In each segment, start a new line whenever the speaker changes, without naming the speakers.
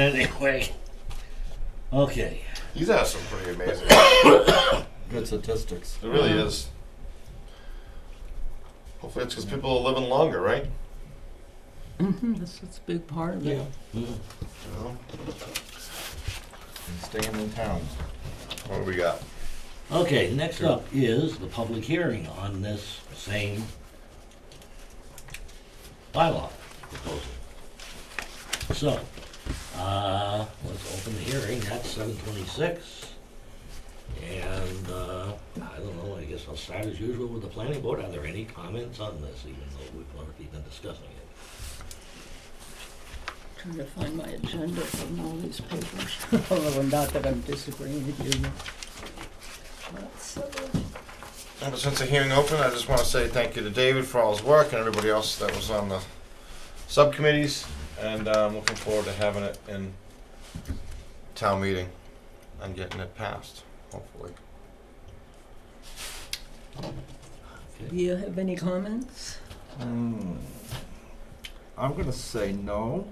Anyway. Okay.
He's has some pretty amazing.
Good statistics.
It really is. Hopefully, it's because people are living longer, right?
Mhm, That's, that's a big part of it.
You know?
And staying in town.
What do we got?
Okay, next up is the public hearing on this same bylaw proposal. So, uh, let's open the hearing at seven twenty-six. And, uh, I don't know, I guess I'll start as usual with the planning board. Are there any comments on this, even though we've already been discussing it?
Trying to find my agenda from all these papers. Although not that I'm disagreeing with you. That's, uh,
Ever since the hearing opened, I just want to say thank you to David for all his work and everybody else that was on the subcommittees. And uh, I'm looking forward to having it in town meeting and getting it passed, hopefully.
Do you have any comments?
Hmm. I'm gonna say no.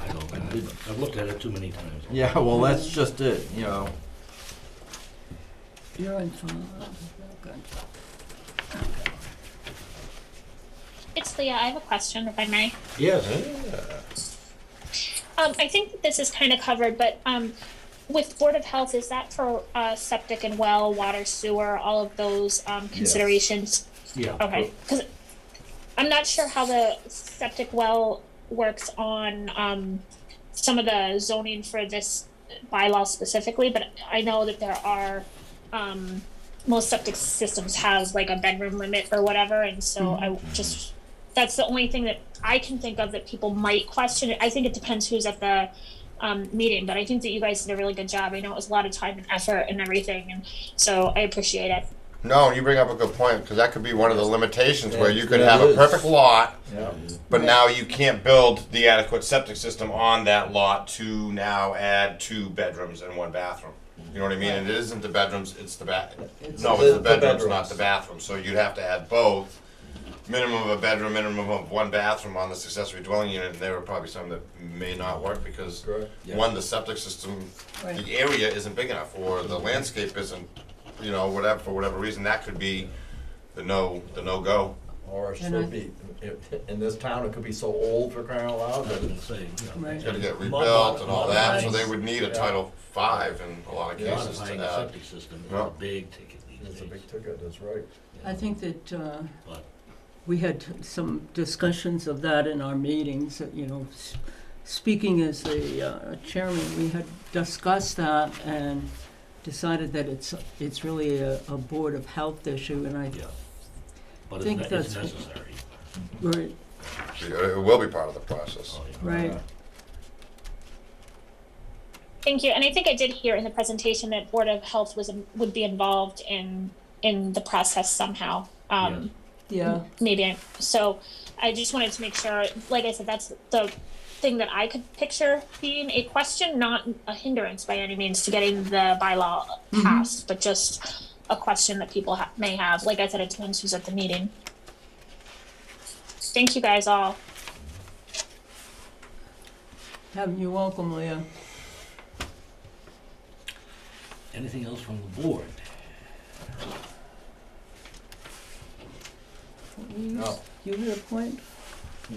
I don't, I didn't- I've looked at it too many times.
Yeah, well, that's just it, you know.
You're on phone. Good.
It's Leah. I have a question, if I may.
Yes,
Um, I think that this is kind of covered, but um, with Board of Health, is that for uh, septic and well, water, sewer, all of those um, considerations?
yeah.
Okay, because I'm not sure how the septic well works on um, some of the zoning for this bylaw specifically, but I know that there are, um, most septic systems have like a bedroom limit or whatever, and so I just, that's the only thing that I can think of that people might question. I think it depends who's at the um, meeting, but I think that you guys did a really good job. I know it was a lot of time and effort and everything, and so I appreciate it.
No, you bring up a good point because that could be one of the limitations where you could
Yeah,
have
it
a
is.
perfect lot,
Yeah.
but now you can't build the adequate septic system on that lot to now add two bedrooms and one bathroom. You know what I mean? And it isn't the bedrooms; it's the bath. No, it's the bedrooms, not the bathroom. So you'd have to add both. Minimum of a bedroom, minimum of one bathroom on this accessory dwelling unit, and there are probably some that may not work because
Yeah.
one, the septic system,
Right.
the area isn't big enough, or the landscape isn't, you know, whatever for whatever reason. That could be the no, the no go.
Or it
And I-
should be, if, in this town, it could be so old for crying out
I
loud,
was
but
gonna say, you know,
Right.
Got to get
Mod-
rebuilt and all that, so
modifying.
they would need a
Yeah.
Title Five in a lot of cases to
modifying a
that.
septic system is
Yeah.
a big ticket these
it's a
days.
big ticket, that's right.
I think that uh,
But
we had some discussions of that in our meetings, that, you know, s- speaking as the uh, chairman, we had discussed that and decided that it's, it's really a, a Board of Health issue, and I,
Yeah, but it's,
Think
ne- it's
that's-
necessary.
right,
It will be part of the process.
Oh, yeah.
right,
Uh,
Thank you, and I think I did hear in the presentation that Board of Health was, would be involved in, in the process somehow. Um,
yeah.
maybe, I- so I just wanted to make sure, like I said, that's the thing that I could picture being a question, not a hindrance by any means to getting the bylaw passed, but just a question that people ha- may have. Like I said, it depends who's at the meeting. Thank you guys all.
Have you welcome, Leah.
Anything else from the board?
No.
You had a point?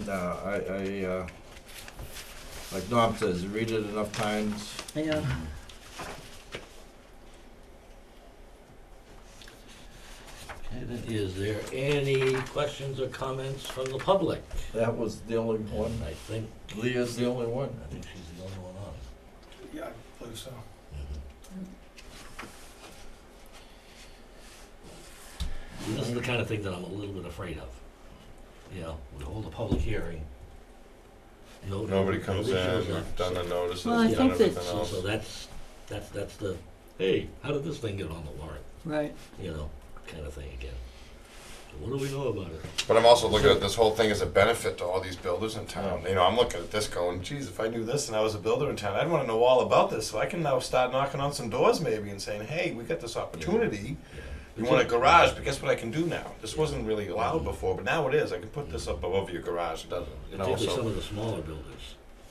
No, I, I, uh, like Norm says, read it enough times,
Yeah.
Okay, then is there any questions or comments from the public?
that was the only one,
And I think,
Leah's the only one.
I think she's the only one on. Mm-hmm.
Yeah, I believe so.
This is the kind of thing that I'm a little bit afraid of. You know, we hold a public hearing. no-
Nobody comes in,
shows up.
we've done the notices,
Well, I
we've done
think that-
everything
So,
else.
so that's, that's, that's the, hey, how did this thing get on the warrant,
Right.
you know, kind of thing again. So What do we know about it?
But I'm also looking at this whole thing as a benefit to all these builders in town. You know, I'm looking at this going, geez, if I knew this and I was a builder in town, I'd wanna know all about this, so I can now start knocking on some doors maybe and saying, hey, we got this opportunity. You want a garage, but guess what I can do now? This wasn't really allowed before, but now it is. I can put this up above your garage, it doesn't, you know,
Particularly some
so.
of the smaller builders.